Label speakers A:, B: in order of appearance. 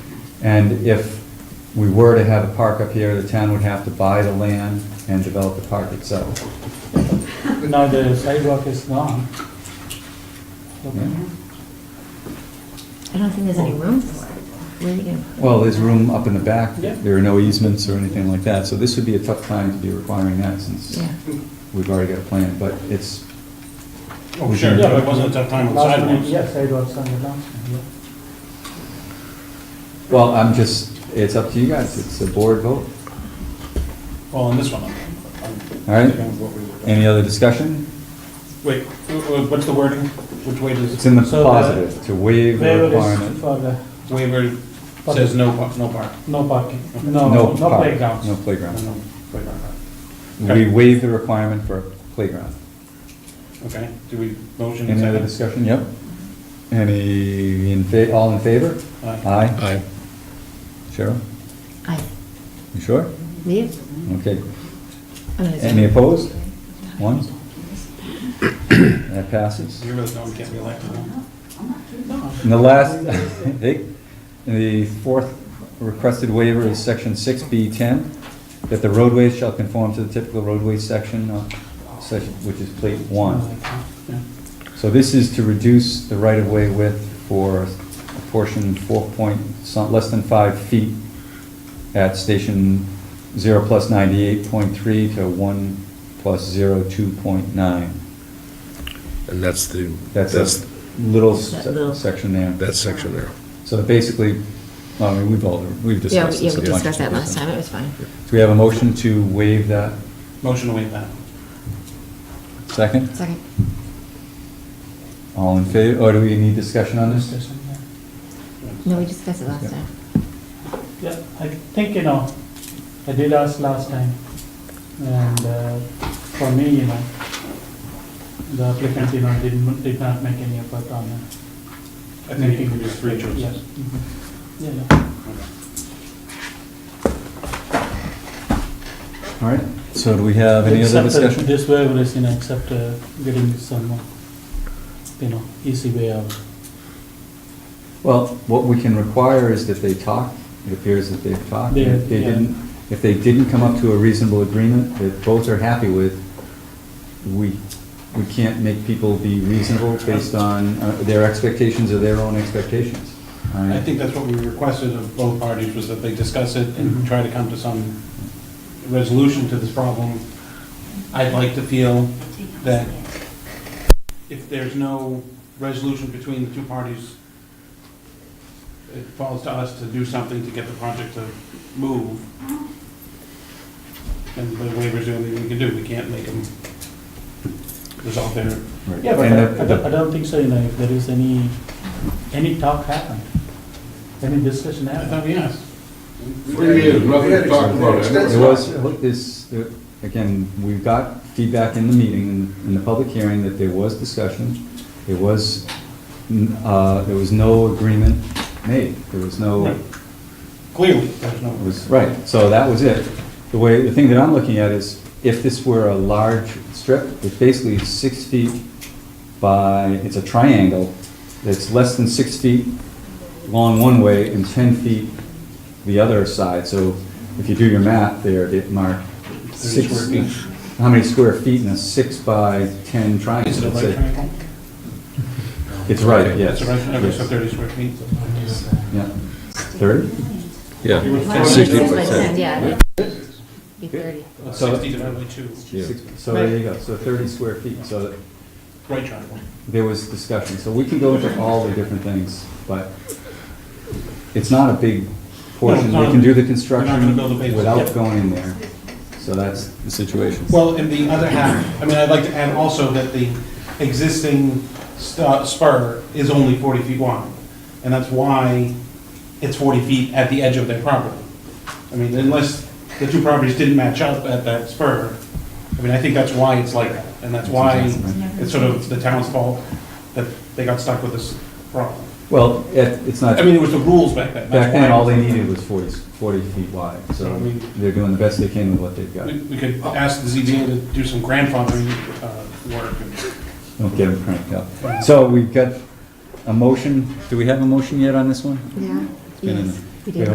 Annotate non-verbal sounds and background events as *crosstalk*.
A: And if we were to have a park up here, the town would have to buy the land and develop the park itself.
B: Now the sidewalk is gone.
A: Yeah.
C: I don't think there's any room for it. Where are you gonna put it?
A: Well, there's room up in the back.
B: Yeah.
A: There are no easements or anything like that, so this would be a tough time to be requiring that since
C: Yeah.
A: we've already got a plan, but it's,
D: Oh, sure,
B: Yeah.
D: it wasn't a tough time on
B: Last minute,
D: sidewalks.
B: Yeah, sidewalks on the downstream, yeah.
A: well, I'm just, it's up to you guys. It's a board vote.
D: Well, on this one, I'm.
A: All right.
D: right.
A: Any other discussion?
D: Wait, wh- wh- what's the wording? Which way
A: It's
D: does,
A: in the
B: So the-
A: positive, to waive the
B: Waiver is
A: requirement.
B: for the,
D: waiver says no, par- no park?
B: no parking,
D: Okay.
B: no, no
A: park,
B: playgrounds.
A: No playground.
D: No playground,
A: We waive the requirement for a playground.
D: Okay, do we, motion and
A: Any other discussion?
D: second?
A: Yep. Any, in fa- all in favor?
D: Aye.
A: Aye.
E: Aye.
A: Cheryl,
C: I,
A: you sure?
C: yeah.
A: Okay.
C: I'm gonna-
A: Any opposed? One? That passes.
D: You really know we can't be elected, huh?
A: And the last, *laughs* eh, the fourth requested waiver is section six B ten, that the roadways shall conform to the typical roadway section, uh, section- which is plate one.
D: Yeah.
A: So this is to reduce the right-of-way width for a portion four point, some- less than five feet at station zero plus ninety-eight point three to one plus zero two point nine.
E: And that's the,
A: That's a
E: that's,
A: little
C: That little-
A: se- section there.
E: that section there.
A: So basically, I mean, we've all, we've
C: Yeah, we-
A: discussed
C: yeah,
A: this a
C: we
A: bunch.
C: discussed that
A: of
C: last time,
A: different-
C: it was fine.
A: Do we have a motion to waive that
D: Motion to waive that.
A: second?
C: Second.
A: All in favor, or do we need discussion on this?
B: Discussion, yeah.
C: No, we discussed it last time.
B: Yeah, I think, you know, I did ask last time, and uh, for me, you know, the applicant, you know, did, did not make any effort on uh,
D: I think you
B: making.
D: can do three
B: Yeah,
D: choices.
B: mhm. Yeah, yeah.
D: Okay.
A: All right, so do we have any other
B: Except, uh,
A: discussion?
B: This waiver is, you know, except uh, getting some, uh, you know, easy way out.
A: Well, what we can require is that they talk, it appears that they've talked. and If they
B: Yeah, yeah.
A: didn't, if they didn't come up to a reasonable agreement that both are happy with, we, we can't make people be reasonable based on uh, their expectations or their own expectations. All right?
D: I think that's what we requested of both parties, was that they discuss it and try to come to some resolution to this problem. I'd like to feel that if there's no resolution between the two parties, it falls to us to do something to get the project to move. And the waiver's the only thing we can do, we can't make them resolve their,
A: Right.
B: Yeah, but
A: And
B: I-
A: the-
B: I don't- I don't think so, you know, if there is any, any talk happened, any discussion
D: I
B: happened.
D: thought we asked.
F: Three years, nothing to talk about.
A: It was, look, this, there- again, we got feedback in the meeting, in- in the public hearing, that there was discussion. There was, n- uh, there was no agreement made. There was no,
D: Right.
A: it
D: Clearly, there's no.
A: was, right, so that was it. The way, the thing that I'm looking at is, if this were a large strip, it's basically six feet by, it's a triangle, it's less than six feet long one way and 10 feet the other side. So if you do your math there, it marked
D: Thirty
A: six,
D: square feet.
A: how many square feet in a six by 10 triangle?
D: Is it a
A: It's
D: right triangle?
A: It's right, yes.
D: It's a right triangle, so
A: yes,
D: 30 square feet.
A: Yeah. 30?
E: Yeah,
C: Why don't we
E: Sixty
C: do this by ten?
E: percent.
C: Yeah. Be thirty.
A: So-
D: 60 divided by 2,
E: Yeah.
A: Six- So there you go, so 30 square feet. So
D: right triangle.
A: there was discussion. So we can go into all the different things, but it's not a big portion.
D: No,
A: We
D: no,
A: can do the
D: not gonna
A: construction
D: build a base.
A: without
D: Yep.
A: going in there. So that's the situation.
D: Well, and the other half, I mean, I'd like to add also that the existing stu- spur is only 40 feet wide, and that's why it's 40 feet at the edge of their property. I mean, unless the two properties didn't match up at that spur, I mean, I think that's why it's like that, and that's why it's sort of the town's fault that they got stuck with this problem.
A: Well, it- it's not.
D: I mean, it was the rules back then. that's
A: Back then,
D: why-
A: all they needed was 40, 40 feet wide,
D: So, I
A: so
D: mean-
A: they're doing the best they can with what they've got.
D: We we could ask the ZBA to do some grandfathering uh, work.
A: Don't get them cranked up. So we've got a motion, do we have a motion yet on this one?
C: Yeah.
A: been in
C: Yes,
A: the- we
C: we did.
A: have